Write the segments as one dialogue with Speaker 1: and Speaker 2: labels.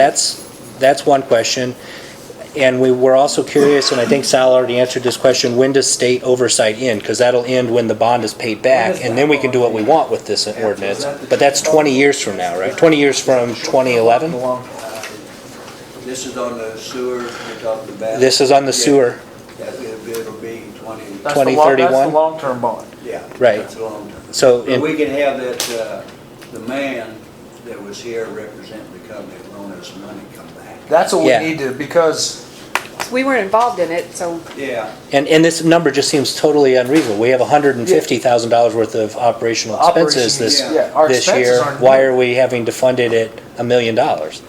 Speaker 1: That's, that's one question. And we were also curious, and I think Sal already answered this question, when does state oversight end? Because that'll end when the bond is paid back, and then we can do what we want with this ordinance. But that's 20 years from now, right? 20 years from 2011?
Speaker 2: This is on the sewer you're talking about?
Speaker 1: This is on the sewer,
Speaker 2: Yeah, It'll be- it'll be 20,
Speaker 3: That's the long- That's
Speaker 1: 2031?
Speaker 3: the long-term bond.
Speaker 2: yeah.
Speaker 1: Right.
Speaker 2: That's a long time.
Speaker 1: so,
Speaker 2: But
Speaker 1: in-
Speaker 2: we can have that, uh, the man that was here representing the company that loaned us money come back.
Speaker 3: That's what we
Speaker 1: Yeah.
Speaker 3: need to, because
Speaker 4: We weren't involved in it, so
Speaker 2: Yeah,
Speaker 1: and, and this number just seems totally unreasonable. We have $150,000 worth of operational expenses
Speaker 3: operations,
Speaker 1: this,
Speaker 3: yeah, our
Speaker 1: this
Speaker 3: expenses
Speaker 1: year.
Speaker 3: aren't.
Speaker 1: Why are we having to fund it at a million dollars?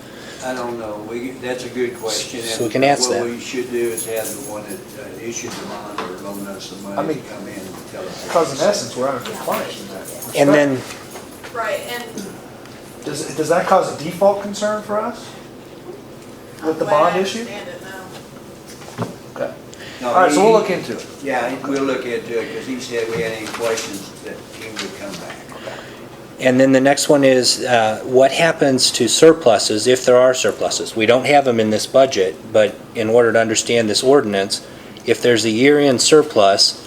Speaker 2: I don't know. We, that's a good question. and
Speaker 1: So we can answer that.
Speaker 2: What we should do is have the one that uh, issued the bond or loaned us the
Speaker 3: I
Speaker 2: money
Speaker 3: mean,
Speaker 2: come in and tell us.
Speaker 3: Because in essence, we're under compliance with that.
Speaker 1: And then,
Speaker 5: Right, and
Speaker 3: Does, does that cause a default concern for us? With the
Speaker 5: way I
Speaker 3: bond issue?
Speaker 5: understand it now.
Speaker 3: Okay.
Speaker 2: No,
Speaker 3: All right, so we'll
Speaker 2: he-
Speaker 3: look into it.
Speaker 2: Yeah, we'll look into it, because he said we had any questions that he would come back.
Speaker 1: And then the next one is, uh, what happens to surpluses if there are surpluses? We don't have them in this budget, but in order to understand this ordinance, if there's a year-end surplus,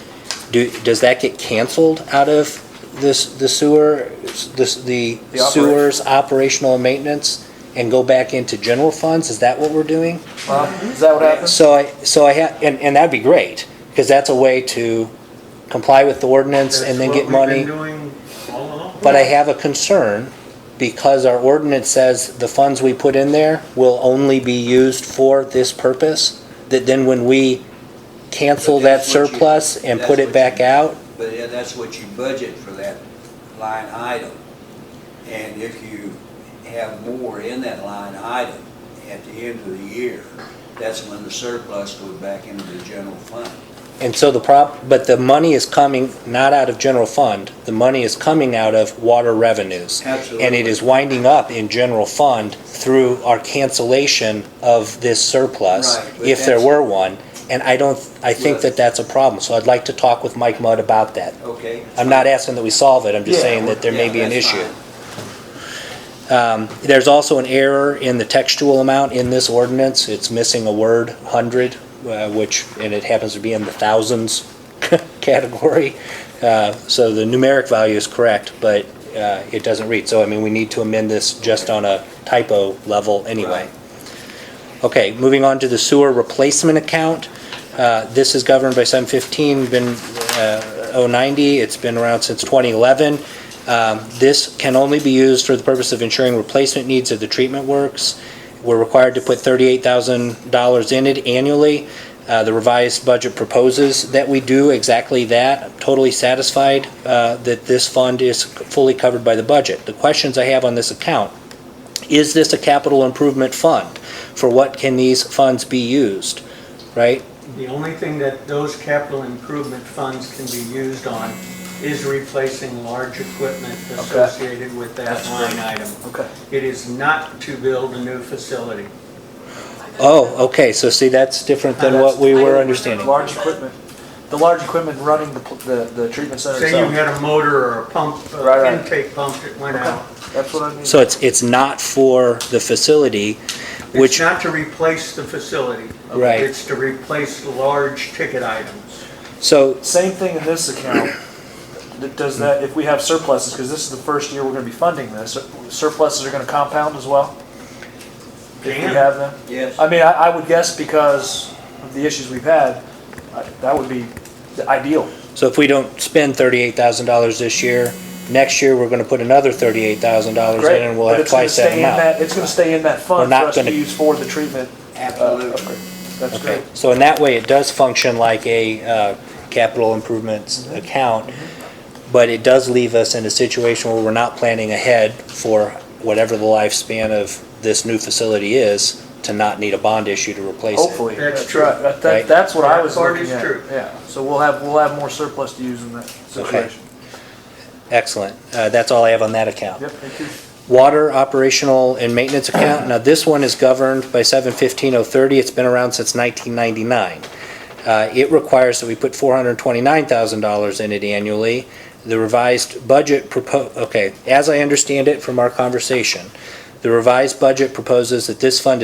Speaker 1: do, does that get canceled out of this, the sewer, this, the
Speaker 3: The operation.
Speaker 1: sewer's operational maintenance and go back into general funds? Is that what we're doing?
Speaker 3: Huh? Is that what happens?
Speaker 1: So I, so I ha, and, and that'd be great, because that's a way to comply with the ordinance and then get money.
Speaker 6: That's what we've been doing all along.
Speaker 1: But I have a concern because our ordinance says the funds we put in there will only be used for this purpose. That then when we cancel
Speaker 2: But
Speaker 1: that
Speaker 2: that's what you-
Speaker 1: surplus and
Speaker 2: that's
Speaker 1: put
Speaker 2: what
Speaker 1: it back
Speaker 2: you-
Speaker 1: out,
Speaker 2: But yeah, that's what you budget for that line item. And if you have more in that line item at the end of the year, that's when the surplus goes back into the general fund.
Speaker 1: and so the prop, but the money is coming not out of general fund, the money is coming out of water revenues.
Speaker 2: Absolutely.
Speaker 1: And it is winding up in general fund through our cancellation of this surplus,
Speaker 2: Right, but
Speaker 1: if there
Speaker 2: that's-
Speaker 1: were one. And I don't, I think that that's a problem, so I'd like to talk with Mike Mudd about that.
Speaker 2: Okay?
Speaker 1: I'm not asking that we solve it, I'm just
Speaker 3: Yeah,
Speaker 1: saying that there may
Speaker 2: Yeah,
Speaker 1: be an
Speaker 2: that's
Speaker 1: issue.
Speaker 2: fine.
Speaker 1: There's also an error in the textual amount in this ordinance, it's missing a word, hundred, uh, which, and it happens to be in the thousands category. Uh, So the numeric value is correct, but uh, it doesn't read, so I mean, we need to amend this just on a typo level anyway. Okay, moving on to the sewer replacement account. Uh, This is governed by 715, been uh, 090, it's been around since 2011. Um, This can only be used for the purpose of ensuring replacement needs of the treatment works. We're required to put $38,000 in it annually. Uh, The revised budget proposes that we do exactly that. I'm totally satisfied uh, that this fund is fully covered by the budget. The questions I have on this account is this a capital improvement fund? For what can these funds be used, right?
Speaker 6: The only thing that those capital improvement funds can be used on is replacing large equipment associated with that line item.
Speaker 3: Okay.
Speaker 6: It is not to build a new facility.
Speaker 1: Oh, okay, so see, that's different
Speaker 3: Oh,
Speaker 1: than what we were understanding.
Speaker 3: Large equipment, the large equipment running the, pl- the, the treatment center
Speaker 6: Say you
Speaker 3: itself.
Speaker 6: had a motor or a pump,
Speaker 3: Uh, Right,
Speaker 6: uh,
Speaker 3: right.
Speaker 6: intake pump that went
Speaker 3: Okay.
Speaker 6: out.
Speaker 3: That's what I mean.
Speaker 1: So it's, it's not for the facility,
Speaker 6: It's
Speaker 1: which,
Speaker 6: not to replace the facility.
Speaker 1: Right.
Speaker 6: It's to replace large ticket items.
Speaker 1: so,
Speaker 3: Same thing in this account. That Does that, if we have surpluses, because this is the first year we're gonna be funding this, uh, surpluses are gonna compound as well? If we
Speaker 6: Can.
Speaker 3: have them?
Speaker 2: Yes,
Speaker 3: I mean, I, I would guess because of the issues we've had, I- that would be the ideal.
Speaker 1: so if we don't spend thirty-eight thousand dollars this year, next year, we're gonna put another thirty-eight thousand dollars in
Speaker 3: Great.
Speaker 1: and we'll
Speaker 3: But
Speaker 1: have
Speaker 3: it's gonna
Speaker 1: twice that
Speaker 3: stay in that-
Speaker 1: amount.
Speaker 3: It's gonna stay in that
Speaker 1: We're
Speaker 3: fund for
Speaker 1: not
Speaker 3: us to
Speaker 1: gonna-
Speaker 3: use for the treatment. uh,
Speaker 2: absolutely.
Speaker 3: upgrade. That's
Speaker 1: Okay,
Speaker 3: great.
Speaker 1: so in that way, it does function like a, uh, capital improvements
Speaker 3: Mm-hmm.
Speaker 1: account, but it does leave us in a situation where we're not planning ahead for whatever the lifespan of this new facility is, to not need a bond issue to replace it.
Speaker 3: Hopefully.
Speaker 6: That's
Speaker 3: That's
Speaker 6: true.
Speaker 3: right. That-
Speaker 1: Right.
Speaker 3: That, that's what I
Speaker 6: That
Speaker 3: was
Speaker 6: part
Speaker 3: looking
Speaker 6: is
Speaker 3: at.
Speaker 6: true.
Speaker 3: Yeah, so we'll have, we'll have more surplus to use in that situation.
Speaker 1: Excellent, uh, that's all I have on that account.
Speaker 3: Yep, thank you.
Speaker 1: Water operational and maintenance account. Now, this one is governed by seven fifteen oh thirty. It's been around since nineteen ninety-nine. Uh, it requires that we put four hundred twenty-nine thousand dollars in it annually. The revised budget propo, okay, as I understand it from our conversation, The revised budget proposes that this fund is